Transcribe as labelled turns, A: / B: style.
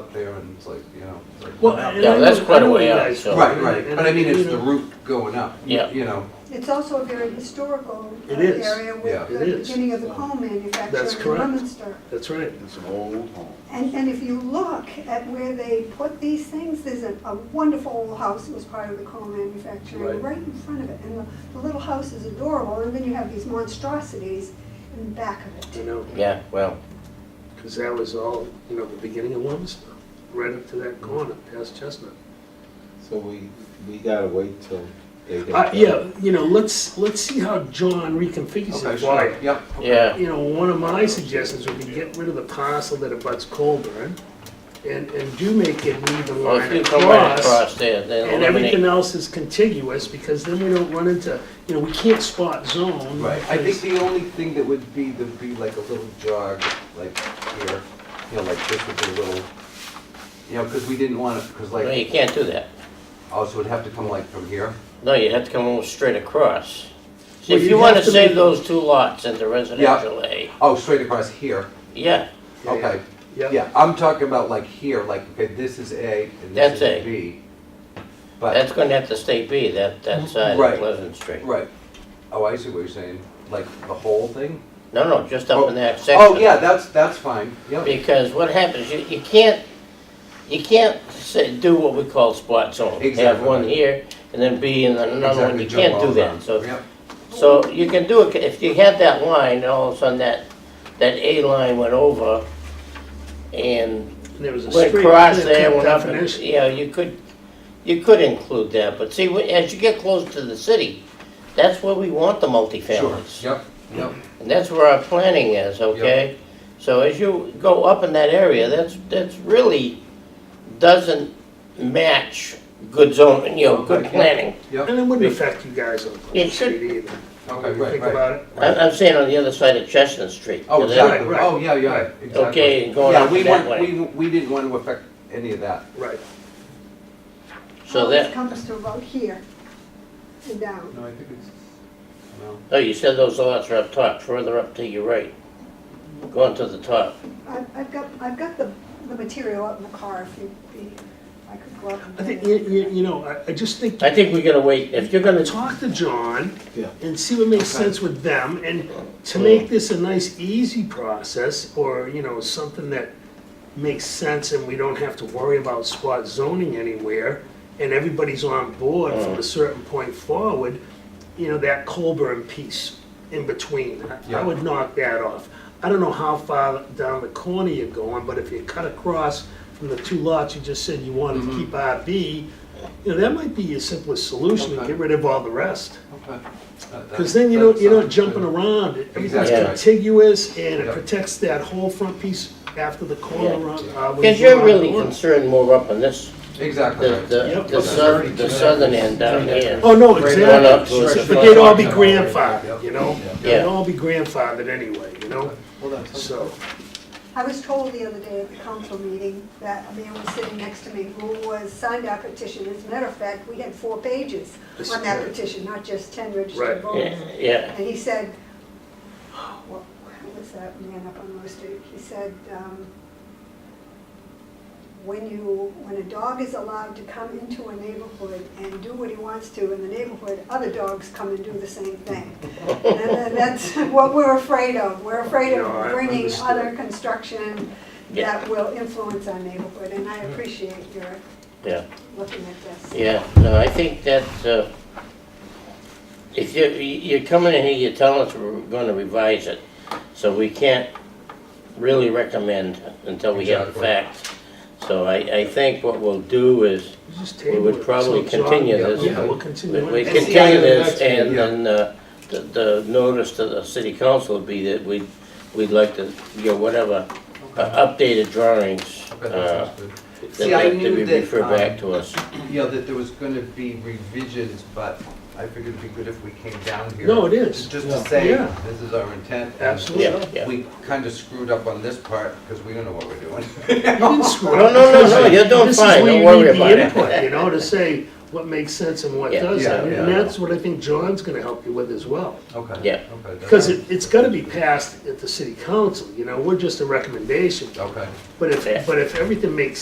A: up there and it's like, you know. it's like-
B: Well, and
C: Yeah,
B: I
C: that's
B: know-
C: quite
B: I
C: a
B: know
C: way
B: you
C: out,
B: guys-
C: so-
A: Right, right, but I mean, it's
B: you
A: the
B: know,
A: route going up.
C: Yeah.
A: You know,
D: It's also a very historical uh,
B: It is.
D: area
A: Yeah.
D: with
B: It
D: the
B: is.
D: beginning of the coal
B: That's
D: manufacturing in
B: correct.
D: Leominster.
B: That's right.
E: It's an old home.
D: And, and if you look at where they put these things, there's a, a wonderful old house that was part of the coal
A: Right.
D: manufacturing, right in front of it. And the, the little house is adorable, and then you have these monstrosities in the back of
B: I
D: it.
B: know,
C: Yeah, well,
B: because that was all, you know, the beginning of Leominster, right up to
A: Mm-hmm.
B: that corner, past Chestnut.
F: So we, we gotta wait till they get.
B: Uh, yeah, you know, let's, let's see how John reconfigures
A: okay,
B: it.
A: sure,
B: Why?
A: yep.
C: yeah,
B: You know, one of my suggestions would be get rid of the parcel that abuts Colburn and, and do make it an even
C: well, if
B: line
C: you come right
B: across.
C: across there, then
B: And everything
C: eliminate,
B: else is contiguous, because then we don't run into, you know, we can't spot zone.
A: Right, I think the
B: because-
A: only thing that would be, there'd be like a little jog, like here, you know, like this would be a little, you know, because we didn't want it, because
C: no,
A: like,
C: you can't do that.
A: also it'd have to come like from here.
C: No, you have to come almost straight across. See,
B: Well,
C: If
B: you'd
C: you wanna
B: have to
C: save
B: make-
C: those two lots in the residential A,
A: Oh, straight across here,
C: yeah,
B: Yeah, yeah.
A: okay. Yeah, I'm talking about like here, like, okay, this is A and this is
C: That's A.
A: B.
C: that's
A: But,
C: gonna have to stay B, that, that side
A: Right.
C: of Pleasant Street.
A: right, oh, I see what you're saying, like the whole thing?
C: No, no, just up in that section.
A: Oh, yeah, that's, that's fine, yep,
C: Because what happens, you, you can't, you can't say, do what we call spot zone. Have
A: Exactly.
C: one here, and then B, and then another one,
A: exactly.
C: you can't do that, so.
A: Yep,
C: So you can do it, if you had that line, all of a sudden that, that A line went over and
B: And there was a
C: went
B: straight
C: across there,
B: clear-cut
C: went up, and,
B: definition.
C: you know, you could, you could include that, but see, when- as you get close to the city, that's where we want the
A: sure,
C: multifamilies.
A: yep, yep,
C: And that's where our planning is, okay? So as you go up in that area, that's, that's really doesn't match good zone, you know, good
A: Okay.
C: planning.
A: yep,
B: And it wouldn't affect you guys on Pleasant
C: It should-
B: Street either.
A: okay,
B: If you
A: right,
B: Think
A: right.
B: about it.
C: I'm, I'm saying on the other side of Chestnut Street.
A: Oh,
C: to the-
A: exactly,
B: Right, right.
A: oh, yeah,
B: Right.
A: yeah, exactly.
C: Okay, going
A: Yeah,
C: up
A: we
C: that
A: weren't-
C: way.
A: We, we didn't want to affect any of that,
B: Right.
C: So
D: Always
C: that,
D: comes to about here and down.
A: no, I think it's, no.
C: no, you said those lots are up top, further up to your right, going to the top.
D: I've, I've got, I've got the, the material up in the car if you, if I could go up and
B: I
D: get
B: think,
D: it.
B: you, you, you know, I, I just think,
C: I think we're gonna wait, if you're gonna,
B: talk to John
F: Yeah.
B: and see what makes
A: Okay.
B: sense with them, and to make this a nice, easy process, or, you know, something that makes sense and we don't have to worry about spot zoning anywhere, and everybody's on board from
A: Mm.
B: a certain point forward, you know, that Colburn piece in between, I- I
A: Yeah.
B: would knock that off. I don't know how far down the corner you're going, but if you cut across from the two lots, you just said you wanted
A: Mm-hmm.
B: to keep RB, you know, that might be your simplest solution, to
A: Okay.
B: get rid of all the rest.
A: Okay. Uh,
B: Because then you don't, you're not jumping around, everything's
A: Exactly.
B: contiguous, and it
A: Yeah.
B: protects that whole front piece after the corner
C: Yeah.
B: around. uh, when
C: because
B: you go
C: you're
B: around
C: really
B: the corner.
C: concerned more up on this,
A: Exactly.
C: the,
A: right.
C: the,
B: Yep.
C: the southern, the southern end down here.
B: Oh, no,
C: Going up
B: exactly,
C: to the
B: but they'd all be
C: front.
B: grandfathered, you know? They'd
C: Yeah.
B: all be grandfathered anyway, you know,
A: Well, that's-
B: so,
D: I was told the other day at the council meeting that a man was sitting next to me who was, signed our petition. As a matter of fact, we had four pages
B: This
D: on
B: is
D: that
B: right.
D: petition, not just ten
B: Right.
D: registered
C: Yeah,
D: voters.
C: yeah,
D: And he said, what, what was that man up on Lower Street? He said, um, when you, when a dog is allowed to come into a neighborhood and do what he wants to in the neighborhood, other dogs come and do the same thing. And tha- that's what we're afraid of. We're afraid
B: No, I
D: of bringing
B: understood.
D: other construction
C: Yeah.
D: that will influence our neighborhood, and I appreciate your
C: yeah,
D: looking at this.
C: yeah. No, I think that, uh, if you, you're coming in here, you're telling us we're gonna revise it, so we can't really recommend until we have the
A: Exactly.
C: facts. So I, I think what we'll do is,
B: you just
C: We
B: table it.
C: would probably
B: So, John,
C: continue
B: yeah,
C: this.
B: Yeah, we'll
C: We
B: continue
C: we
B: it.
A: can-
C: continue this,
F: Yeah.
C: and then uh, the- the notice to the city council would be that we'd, we'd like to, you know, whatever, uh, updated drawings
A: Okay, that
C: uh,
A: sounds good.
C: that
A: See, I
C: that
A: knew
C: we
A: that,
C: refer back
A: um,
C: to us.
A: Yeah, that there was gonna be revisions, but I figured it'd be good if we came down here.
B: No, it is.
A: Just to say,
B: Yeah.
A: this is our intent. and
B: Absolutely.
C: Yeah, yeah.
A: We kinda screwed up on this part, because we don't know what we're doing.
B: You didn't screw
C: No,
B: up.
C: no, no, no, you're doing
B: This is
C: fine,
B: where
C: don't
B: you
C: worry
B: need the
C: about
B: input,
C: it.
B: You know, to say what makes sense and what
C: Yeah.
A: Yeah,
B: doesn't, and
A: yeah.
B: that's what I think John's gonna help you with as well.
A: Okay.
C: Yeah.
A: okay, that-
B: Because it, it's gotta be passed at the city council, you know, we're just a recommendation,
A: Okay.
B: but if,
C: Yeah.
B: but if everything makes